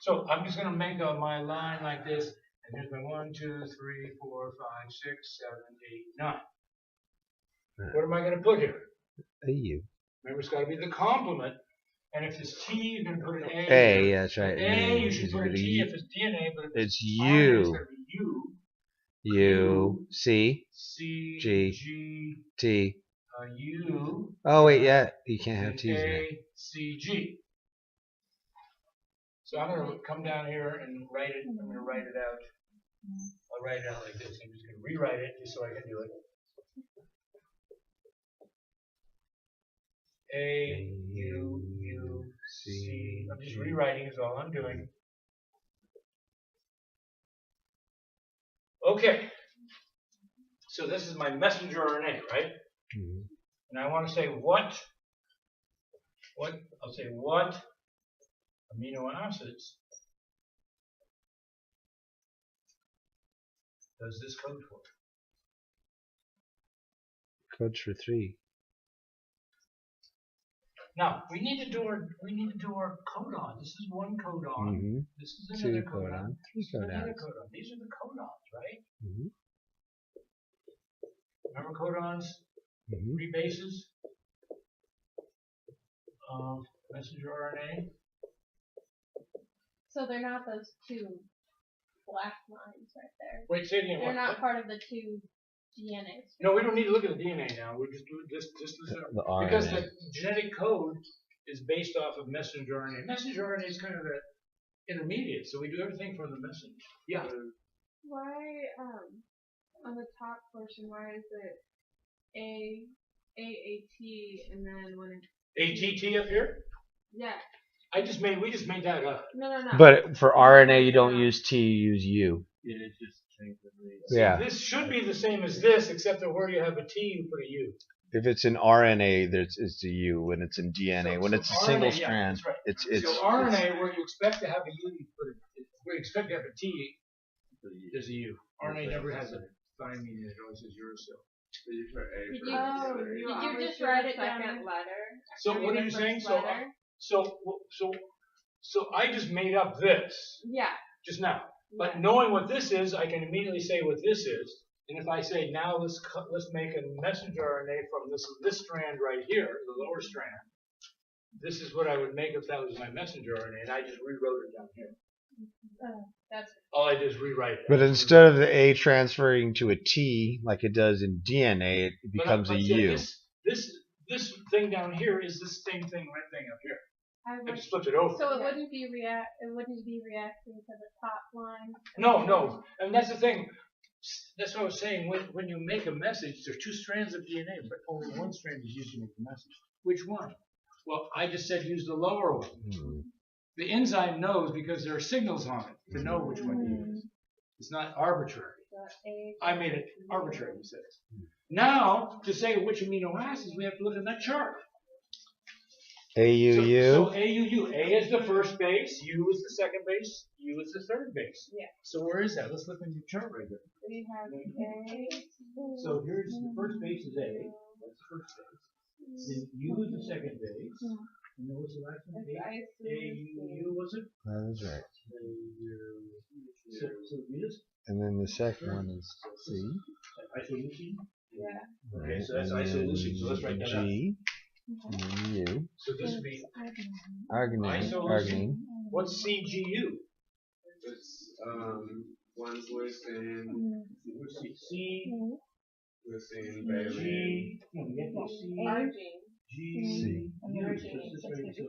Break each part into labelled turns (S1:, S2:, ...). S1: So I'm just gonna make a, my line like this, and there's my one, two, three, four, five, six, seven, eight, nine.
S2: Hmm.
S1: What am I gonna put here?
S2: A U.
S1: Remember, it's gotta be the complement, and if it's T, you're gonna put an A.
S2: A, yeah, that's right.
S1: A, you should
S2: It's
S1: put a
S2: gonna
S1: T
S2: be-
S1: if it's DNA, but if it's RNA, it's
S2: It's U,
S1: gonna be U,
S2: U, C,
S1: C,
S2: G.
S1: G,
S2: T.
S1: uh, U,
S2: Oh wait, yeah, you can't have
S1: and
S2: T's in it.
S1: A, C, G. So I'm gonna come down here and write it, I'm gonna write it out. I'll write it out like this, I'm just gonna rewrite it just so I can do it. A, U, U, C, I'm just rewriting is all I'm doing. Okay. So this is my messenger RNA, right?
S2: Mhm.
S1: And I want to say what, what, I'll say what amino acids does this code for?
S2: Codes for three.
S1: Now, we need to do our, we need to do our codon. This is one codon.
S2: Mm-hmm.
S1: This is
S2: Two
S1: another codon.
S2: codon, three
S1: This is another
S2: codons.
S1: codon. These are the codons, right?
S2: Mhm.
S1: Remember codons,
S2: Mhm.
S1: three bases of messenger RNA?
S3: So they're not those two black lines right there.
S1: Wait, say it again.
S3: They're
S1: What-
S3: not
S1: what-
S3: part of the two DNAs.
S1: No, we don't need to look at the DNA now. We're just doing just just this
S2: The
S1: because
S2: RNA.
S1: the genetic code is based off of messenger RNA. Messenger RNA is kind of the intermediate, so we do everything from the messenger. Yeah.
S3: Why um on the top portion why is it A A A T and then when it
S1: ATT up here.
S3: yeah
S1: I just made we just made that up.
S3: no no no
S2: But for RNA, you don't use T, you use U. Yeah.
S1: This should be the same as this, except that where you have a T, you put a U.
S2: If it's in RNA, there's it's a U. When it's in DNA,
S1: So-
S2: when
S1: so
S2: it's a single
S1: RNA, yeah,
S2: strand,
S1: that's right.
S2: it's it's.
S1: so RNA, where you expect to have a U, you put a, where you expect to have a T, there's a U. RNA never has a fine median; it always has uracil.
S3: did you,
S4: Oh,
S3: did
S4: you
S3: you
S4: always
S3: just
S4: do
S3: write
S4: the
S3: it down
S4: second
S3: letter
S1: So what are you saying? So uh, I- So, w- so, so I just made up this
S3: yeah
S1: just now. But
S3: yeah.
S1: knowing what this is, I can immediately say what this is. And if I say now let's cut, let's make a messenger RNA from this this strand right here, the lower strand. This is what I would make if that was my messenger RNA, and I just rewrote it down here.
S3: Oh, that's
S1: All I did is rewrite it.
S2: But instead of the A transferring to a T like it does in DNA, it
S1: But I-
S2: becomes a
S1: but see,
S2: U.
S1: This, this this thing down here is the same thing right thing up here.
S3: I
S1: I
S3: would,
S1: just flipped it over.
S3: so it
S4: Yeah.
S3: wouldn't be react it wouldn't be reacting to the top line
S1: No, no, and that's the thing. S- That's what I was saying. When, when you make a message, there are two strands of DNA, but only one strand is used to make the message. Which one? Well, I just said use the lower one.
S2: Hmm.
S1: The enzyme knows because there are signals on it to know which one to use. It's not arbitrary.
S3: the A
S1: I made it arbitrary, he says. Now, to say which amino acids, we have to look in that chart.
S2: A U
S1: So-
S2: U.
S1: So AUU, A is the first base, U is the second base, U is the third base.
S3: Yeah.
S1: So where is that? Let's look in your chart right there.
S3: we have A
S1: So here's the first base is A, that's the first base. Then U is the second base. And then what's the last one? A,
S3: I
S1: A, U, U was it?
S2: That's right.
S1: So, so you just,
S2: And then the second one is C.
S1: isoleucine?
S3: Yeah.
S1: Okay, so
S2: right?
S1: that's
S2: And then
S1: isoleucine, so let's write that out.
S2: G, and then U.
S1: So this would be,
S2: Arginine.
S1: Isoleucine.
S2: Arginine.
S1: what's CGU?
S4: It's um one's leucine,
S1: What's C- C,
S4: leucine, valine.
S1: G, no, we have to C, G,
S2: C.
S1: U. So it's just right, so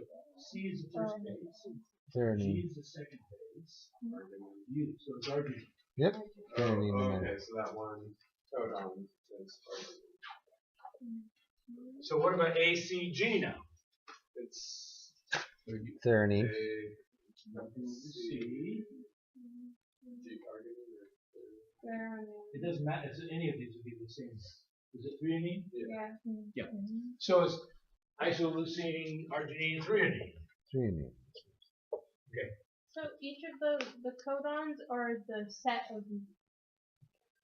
S1: C is the first base, G
S2: Threonine.
S1: is the second base, U, so it's arginine.
S2: Yep.
S4: Oh,
S2: Threonine and
S4: okay, so that one codon is arginine.
S1: So what about ACG now?
S4: It's uh, a
S2: Threonine.
S4: C
S1: C,
S4: G arginine.
S1: it doesn't matter, it's- any of these would be the same. Is it threonine?
S3: Yeah.
S1: So it's isoleucine, arginine, threonine.
S2: Threonine.
S3: So each of the the codons are the set of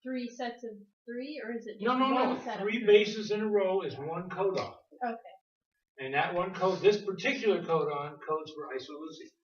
S3: three sets of three, or is it just
S1: No, no,
S3: one
S1: no,
S3: set of
S1: three bases in a row is one codon.
S3: Okay.
S1: And that one code, this particular codon codes for isoleucine.